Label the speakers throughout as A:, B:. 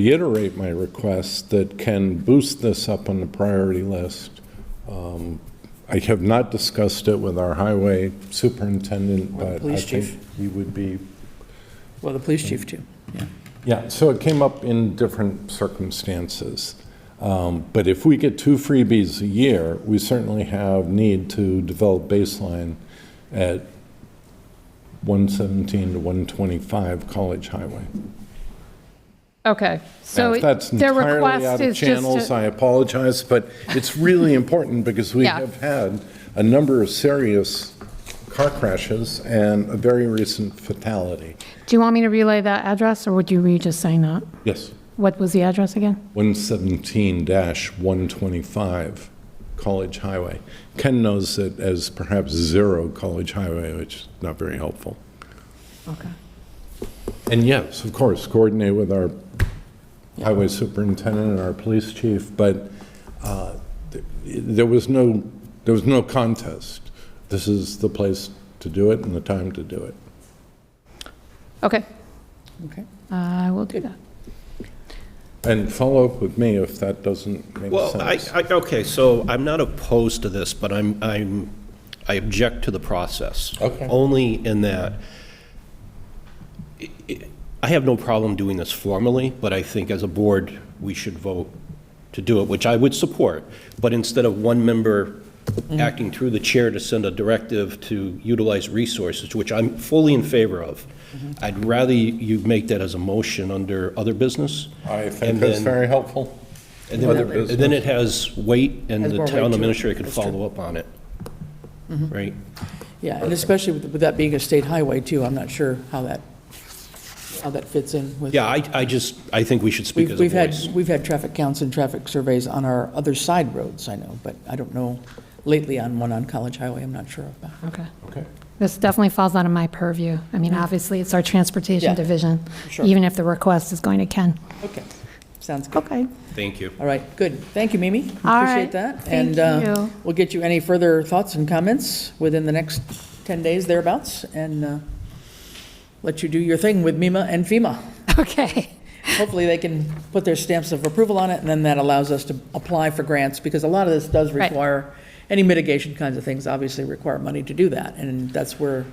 A: reiterate my request that can boost this up on the priority list. Um, I have not discussed it with our highway superintendent,
B: Or the
A: but I
B: police
A: think
B: chief.
A: he would be,
B: Well, the police chief too, yeah.
A: yeah, so it came up in different circumstances. Um, But if we get two freebies a year, we certainly have need to develop baseline at 117 to 125 College Highway.
C: Okay, so
A: Now,
C: it-
A: If that's
C: their
A: entirely
C: request
A: out of
C: is just,
A: channels,
C: to-
A: I apologize, but it's really important because we
C: Yeah.
A: have had a number of serious car crashes and a very recent fatality.
C: do you want me to relay that address, or would you, were you just saying that?
A: Yes,
C: What was the address again?
A: 117-125 College Highway. Ken knows it as perhaps zero College Highway, which is not very helpful.
C: Okay.
A: And yes, of course, coordinate with our highway superintendent and our police chief, but uh, th- there was no, there was no contest. This is the place to do it and the time to do it.
C: Okay,
B: Okay.
C: I will Uh, do that.
A: And follow up with me if that doesn't make
D: Well, I,
A: sense.
D: I, okay, so I'm not opposed to this, but I'm, I'm, I object to the process.
A: Okay.
D: Only in that, i- i- I have no problem doing this formally, but I think as a board, we should vote to do it, which I would support. But instead of one member
A: Mm-hmm.
D: acting through the chair to send a directive to utilize resources, which I'm fully in favor of,
A: Mm-hmm.
D: I'd rather you make that as a motion under other business.
A: I
D: and
A: think that's
D: then-
A: very helpful.
D: and then,
A: Other
D: and then it has weight, and
B: Has
D: the
B: more weight
D: town
B: to it.
D: administrator could
B: That's true. Mm-hmm.
D: follow up on it. Right?
B: Yeah, and especially with with that being a state highway too, I'm not sure how that, how that fits in with.
D: Yeah, I, I just, I think we should speak
B: We've
D: as a
B: we've had,
D: voice.
B: we've had traffic counts and traffic surveys on our other side roads, I know, but I don't know lately on one on College Highway, I'm not sure about.
C: Okay.
A: Okay.
C: This definitely falls out of my purview. I mean, obviously, it's our
B: Yeah,
C: transportation division,
B: sure.
C: even if the request is going to Ken.
B: Okay, sounds good.
C: Okay.
D: Thank you.
B: All right, good. Thank you, Mimi.
C: All
B: Appreciate
C: right.
B: that. And
C: Thank
B: uh,
C: you.
B: we'll get you any further thoughts and comments within the next 10 days thereabouts, and uh, let you do your thing with MEMA and FEMA.
C: Okay.
B: Hopefully, they can put their stamps of approval on it, and then that allows us to apply for grants, because a lot of this does
C: Right.
B: require, any mitigation kinds of things obviously require money to do that, and that's where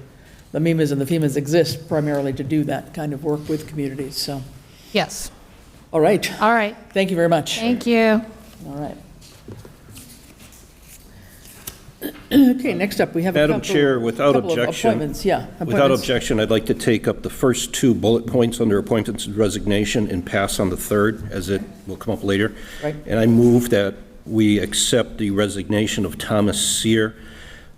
B: the MEMAs and the FEMAs exist primarily to do that kind of work with communities, so,
C: Yes.
B: all right.
C: All right.
B: Thank you very much.
C: Thank you.
B: All right. Okay, next up, we have a couple.
D: Madam Chair, without
B: couple of
D: objection-
B: Appointments, yeah.
D: Without
B: appointments.
D: objection, I'd like to take up the first two bullet points under appointments and resignation and pass on the third, as it will come up later.
B: Right.
D: And I move that we accept the resignation of Thomas Seer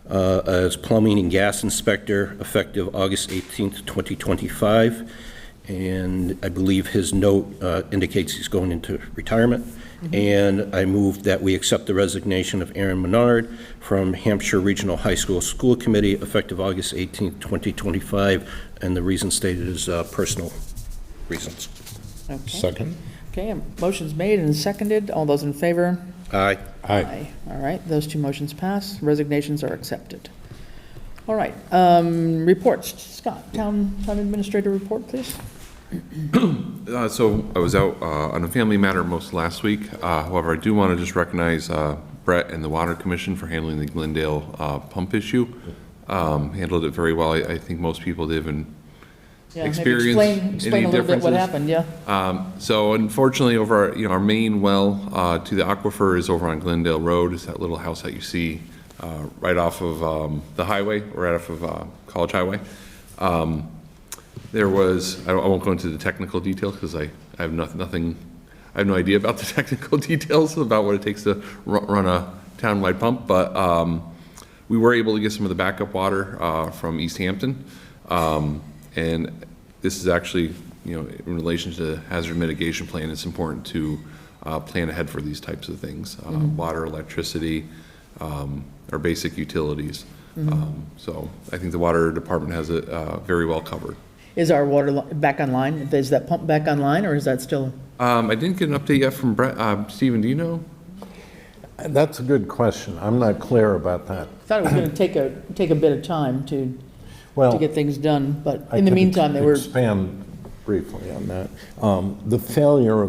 D: uh, as plumbing and gas inspector effective August 18th, 2025. And I believe his note uh, indicates he's going into retirement. And I move that we accept the resignation of Aaron Menard from Hampshire Regional High School School Committee effective August 18th, 2025. And the reason stated is uh, personal reasons.
B: Okay.
A: Second?
B: Okay, a motion's made and seconded. All those in favor?
D: Aye.
A: Aye.
B: Aye. All right, those two motions pass. Resignations are accepted. All right, um, reports. Scott, town, town administrator report, please.
E: Uh, So I was out uh, on a family matter most last week. Uh, However, I do want to just recognize uh, Brett and the Water Commission for handling the Glendale uh, pump issue. Um, Handled it very well. I I think most people did, and
B: Yeah, maybe
E: Experience,
B: Explain,
E: any
B: explain a little bit what
E: differences?
B: happened, yeah.
E: um, So unfortunately, over, our- you know, our main well uh, to the aquifer is over on Glendale Road. It's that little house that you see uh, right off of um, the highway, right off of uh, College Highway. Um, There was, I I won't go into the technical details because I I have noth- nothing, I have no idea about the technical details about what it takes to ru- run a town-wide pump, but um, we were able to get some of the backup water uh, from East Hampton. Um, And this is actually, you know, in relation to the hazard mitigation plan, it's important to uh, plan ahead for these types of things. Uh, Water, electricity, um, are basic utilities. Um, So I think the water department has it uh, very well covered.
B: Is our water li- back online? Is that pump back online, or is that still?
E: Um, I didn't get an update yet from Brett, uh, Stephen, do you know?
A: And That's a good question. I'm not clear about that.
B: Thought it was going to take a, take a bit of time to, to
A: Well,
E: Oh.
B: get things done, but
A: I
B: in the
A: could
B: meantime, they were,
A: Expand
F: briefly on that. Um, The failure of